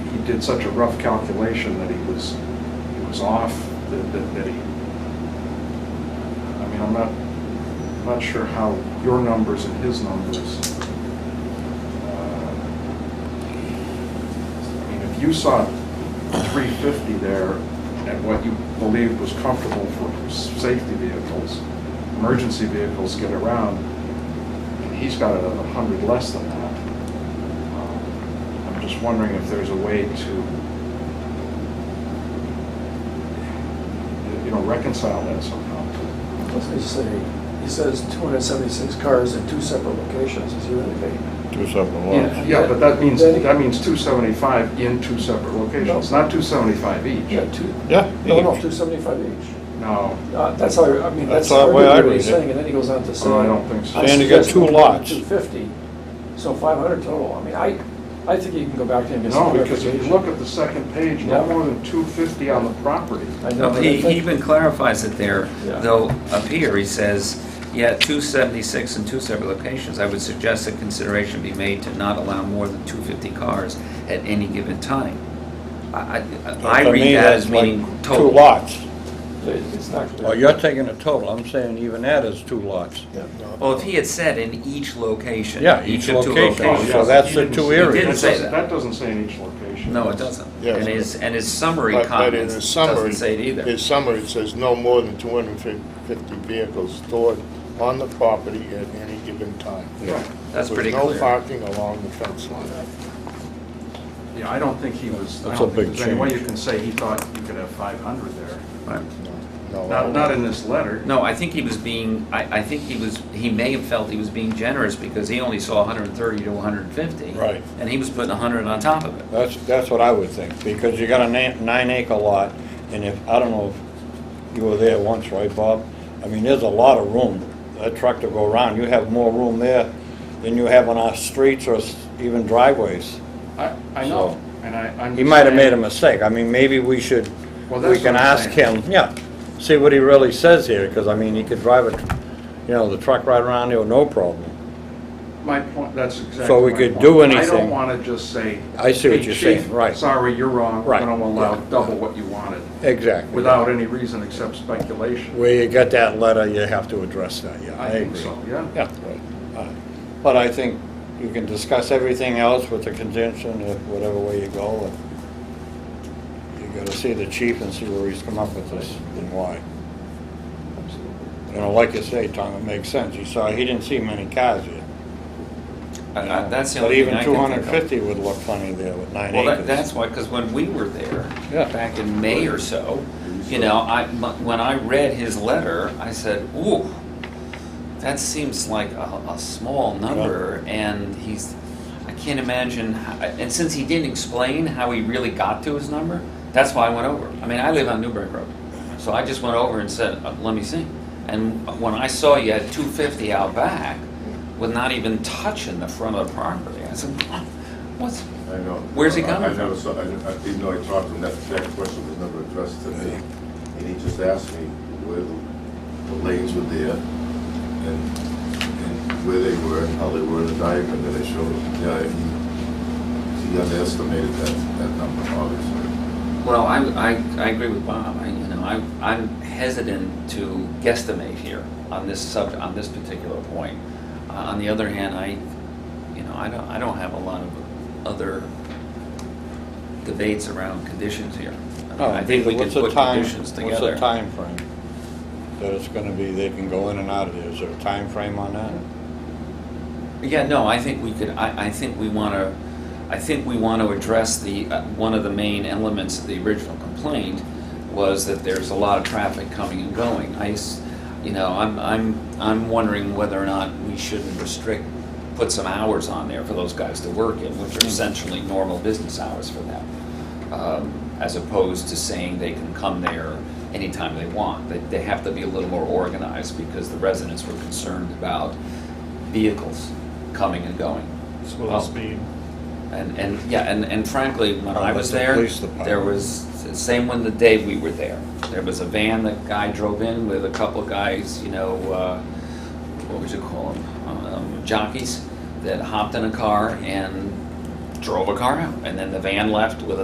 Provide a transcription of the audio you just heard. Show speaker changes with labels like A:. A: did such a rough calculation that he was, he was off, that, that- that he, I mean, I'm not, I'm not sure how your numbers and his numbers. uh, I mean, if you saw three fifty there at what you believed was comfortable for safety vehicles, emergency vehicles get around, and he's got it at a hundred less than that. Um, I'm just wondering if there's a way to, you know, reconcile that somehow.
B: What's he say? He says 276 cars in two separate locations, is he really big?
C: Two separate lots.
A: Yeah, but that means,
B: Then-
A: that means two seventy-five in two separate locations, not two seventy-five each.
B: Yeah, two,
C: Yeah.
B: no, no,
C: each.
B: 275 each.
A: No,
B: Uh, That's how, I I mean,
C: That's
B: that's
C: the way I
B: arguably what
C: read
B: he's
C: it.
B: saying, and then he goes on to say.
A: Oh, I don't think so.
B: I
C: Saying you got
B: suggest
C: two
B: we go to
C: lots.
B: 250, so 500 total. I mean, I, I think you can go back there and get some
A: no, because
B: clarification.
A: if you look at the second page, no
B: Yeah.
A: more than two fifty on the property.
B: I know,
D: No,
B: but I
D: He he
B: think-
D: even clarifies it there,
B: Yeah.
D: though up here, he says, yeah, 276 in two separate locations. I would suggest that consideration be made to not allow more than 250 cars at any given time. I- I I
C: To me,
D: read that
C: that's
D: as meaning
C: like
D: total.
C: Two lots.
B: It's not clear.
E: Well, you're taking a total, I'm saying even that is two lots.
D: Well, if he had said in each location.
E: Yeah, each
D: of two
E: location.
A: Oh,
D: locations.
E: So that's the two areas.
D: He didn't say that.
A: That doesn't say in each location.
D: No, it doesn't.
C: Yeah.
D: And his, and his summary
C: But but in
D: comments
C: the summary,
D: doesn't say it either.
C: His summary says no more than 250 vehicles stored on the property at any given time.
A: Yeah.
D: That's pretty
C: With
D: clear.
C: no parking along the fence line.
A: Yeah, I don't think he was, I
E: That's a
A: don't think
E: big
A: there's any way you
E: change.
A: can say he thought you could have 500 there.
D: Right.
C: No,
A: Not, not in this letter.
D: No, I think he was being, I, I think he was, he may have felt he was being generous because he only saw 130 to 150.
E: Right.
D: And he was putting 100 on top of it.
E: That's, that's what I would think, because you got a ni- nine acre lot, and if, I don't know if you were there once, right, Bob? I mean, there's a lot of room, that truck to go around, you have more room there than you have on our streets or s- even driveways.
A: I, I know, and I, I'm.
E: He might have made a
A: him.
E: mistake, I mean, maybe we should,
A: Well,
E: we
A: that's
E: can
A: what I'm
E: ask
A: saying.
E: him, yeah, see what he really says here, because I mean, he could drive a, tr- you know, the truck right around there with no problem.
A: My point, that's exactly.
E: So we
A: my
E: could
A: point.
E: do
A: I don't
E: anything.
A: want to just say.
E: I see what
A: "Hey,
E: you're
A: chief,
E: saying, right.
A: Sorry, you're wrong.
E: Right.
A: We're going to allow
E: Yeah.
A: double what you wanted,
E: Exactly.
A: without any reason except speculation.
E: Where you get that letter, you have to address that, yeah, I
A: I think
E: agree.
A: so, yeah.
E: Yeah, right, all right. But I think you can discuss everything else with the contention of whatever way you go. and You gotta see the chief and see where he's come up with this and why. You know, like you say, Tom, it makes sense. He saw, he didn't see many cars here.
D: I-
E: you
D: I-
E: know.
D: Uh, That's the only thing I can think of.
E: But even 250 would look funny there with nine
D: Well,
E: acres.
D: that, that's why, because when we were there,
E: Yeah.
D: back in May or so, you know, I, m- when I read his letter, I said, ooh, that seems like a, a small number, and he's, I can't imagine, how- and since he didn't explain how he really got to his number, that's why I went over. I mean, I live on Newbury Road, so I just went over and said, uh, let me see. And when I saw you had two fifty out back, with not even touching the front of the property, I said, what's,
F: I know.
D: Where's he
F: I-
D: coming
F: I never saw, I I didn't know I talked to him, that, that question was never addressed to me. And he just asked me where the, the lanes were there and, and where they were and how they were in the diagram that I showed him. Yeah, he, he underestimated that, that number, obviously.
D: Well, I, I, I agree with Bob, I, you know, I, I'm hesitant to guesstimate here on this sub, on this particular point. Uh, On the other hand, I, you know, I don't, I don't have a lot of other debates around conditions here. I mean,
E: No,
D: I think we can
E: Oh, what's the
D: put
E: time-
D: conditions together.
E: What's the timeframe that it's gonna be, they can go in and out of there? Is there a time frame on that?
D: Yeah, no, I think we could, I, I think we want to, I think we want to address the, uh, one of the main elements of the original complaint was that there's a lot of traffic coming and going. I, s- you know, I'm, I'm, I'm wondering whether or not we shouldn't restrict, put some hours on there for those guys to work in, which are essentially normal business hours for them. um, As opposed to saying they can come there anytime they want. They, they have to be a little more organized because the residents were concerned about vehicles coming and going. Oh.
G: Slow speed.
D: And, and, yeah, and, and frankly, when
E: Oh,
D: I
E: that's
D: was
E: the
D: there,
E: police department.
D: there was, same when the day we were there, there was a van that guy drove in with a couple of guys, you know, uh, what would you call them? Um, Jockeys that hopped in a car and drove a car out. And then the van left with a